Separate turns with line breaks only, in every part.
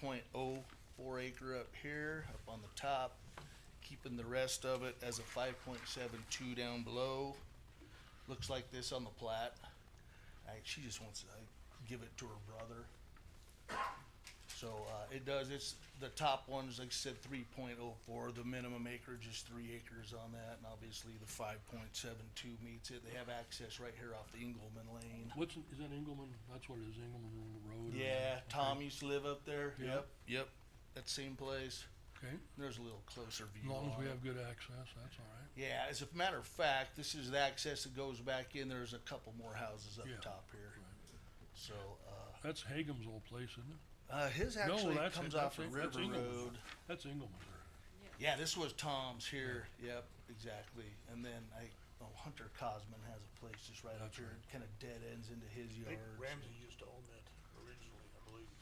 point oh four acre up here, up on the top, keeping the rest of it as a five point seven two down below. Looks like this on the plat. I, she just wants to like, give it to her brother. So, uh, it does, it's, the top one's, like I said, three point oh four, the minimum acreage is three acres on that, and obviously the five point seven two meets it. They have access right here off the Engelman Lane.
What's, is that Engelman? That's what it is, Engelman Road? or-
Yeah,
okay,
Tom used to live up there.
Yeah.
Yep, yep. That same place.
Okay,
There's a little closer
as
view.
long
on
as we
it.
have good access, that's all right.
Yeah, as a matter of fact, this is the access that goes back in. There's a couple more houses up
Yeah.
top here. So, uh,
That's Hagem's old place, isn't it?
uh, his actually
that's it,
comes off
that's it,
of
that's
River
Engelman.
Road.
That's Engelman.
Yeah, this was Tom's here. Yep, exactly. And then I, oh, Hunter Cosman has a place just right up
That's
here.
right.
It kind of dead ends into his
I
yard.
think Ramsey used to own that originally, I believe,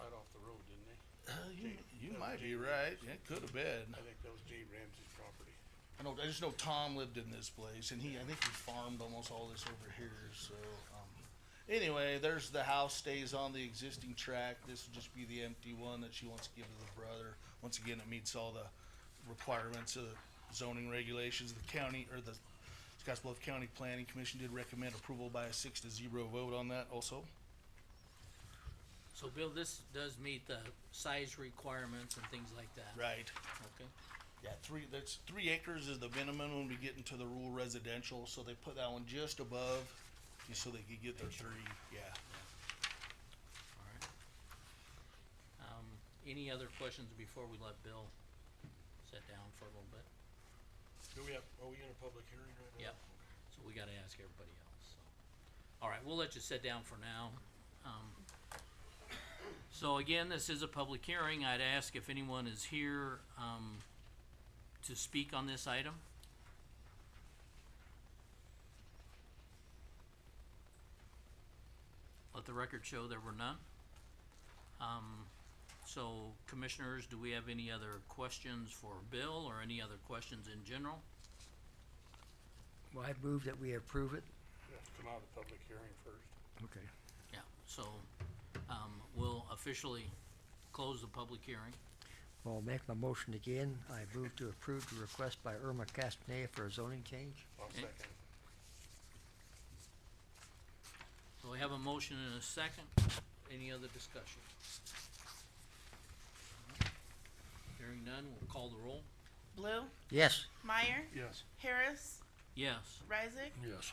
right off the road, didn't they?
Uh, you,
Jake-
you
that was
might be
Jake
right. It could have been.
I think that was Jay Ramsey's property.
I know. I just know Tom lived in this place, and he. I think he farmed almost all this over here. So, um, anyway, there's the house stays on the existing track. This will just be the empty one that she wants to give to the brother. Once again, it meets all the requirements of zoning regulations. The county or the Scottsbluff County Planning Commission did recommend approval by a six to zero vote on that. Also,
So Bill, this does meet the size requirements and things like that?
right.
Okay,
Yeah, three. That's three acres is the minimum when we get into the rural residential. So they put that one just above, just so they could get their three. Yeah.
alright. Um, any other questions before we let Bill sit down for a little bit?
Do we have, are we in a public hearing right now?
Yep. So we gotta ask everybody else, so. Alright, we'll let you sit down for now. Um, so again, this is a public hearing. I'd ask if anyone is here, um, to speak on this item. Let the record show there were none. Um, so commissioners, do we have any other questions for Bill or any other questions in general?
Well, I move that we approve it.
You have to come out of the public hearing first.
Okay.
Yeah, so, um, we'll officially close the public hearing.
Well, I'll make my motion again. I move to approve the request by Irma Castaneda for a zoning change.
I'll
Okay.
second.
So we have a motion and a second. Any other discussion? Hearing none, we'll call the roll.
Blue,
Yes,
Meyer,
Yes.
Harris,
Yes,
Reisig,
Yes,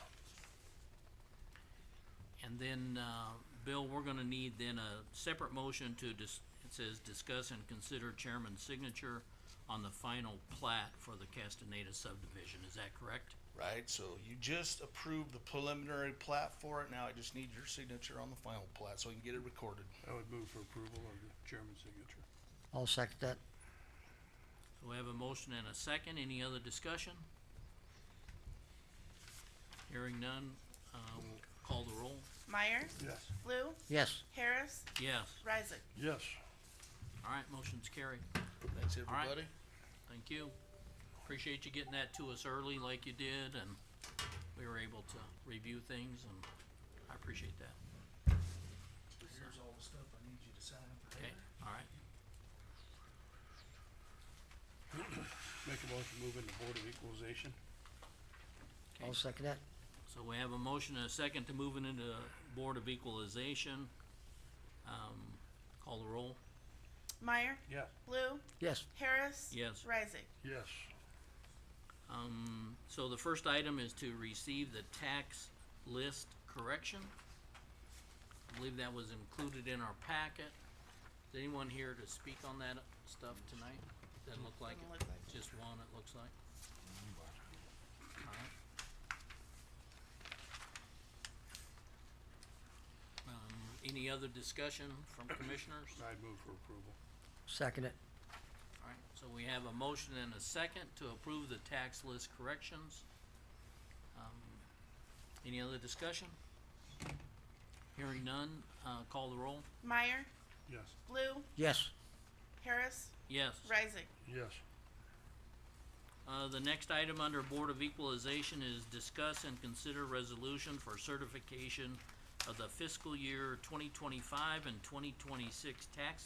and then, uh, Bill, we're gonna need then a separate motion to dis- it says discuss and consider chairman's signature on the final plat for the Castaneda subdivision. Is that correct?
Right, so you just approved the preliminary plat for it, now I just need your signature on the final plat so I can get it recorded.
I would move for approval of the chairman's signature.
I'll second that.
So we have a motion and a second, any other discussion? Hearing none, uh, we'll call the roll,
Meyer,
Yes.
Blue,
Yes,
Harris,
yes,
Reisig.
yes.
alright, motion's carried,
Thanks,
All right.
everybody.
thank you. Appreciate you getting that to us early like you did, and we were able to review things, and I appreciate that,
Here's all the stuff I need you to sign
okay, alright.
Make a motion, move into Board of Equalization.
I'll second that.
So we have a motion and a second to moving into Board of Equalization, um, call the roll,
Meyer,
Yes.
Blue,
Yes,
Harris,
Yes.
Reisig.
Yes.
Um, so the first item is to receive the tax list correction. I believe that was included in our packet. Is anyone here to speak on that stuff tonight? Doesn't look like
Doesn't
it.
look like it.
Just one, it looks like. Alright. Um, any other discussion from commissioners?
I'd move for approval.
second it.
Alright, so we have a motion and a second to approve the tax list corrections. Um, Any other discussion? Hearing none, uh, call the roll.
Meyer,
Yes.
Blue,
Yes,
Harris,
Yes.
Reisig.
Yes.
Uh, the next item under Board of Equalization is discuss and consider resolution for certification of the fiscal year twenty twenty-five and twenty twenty-six tax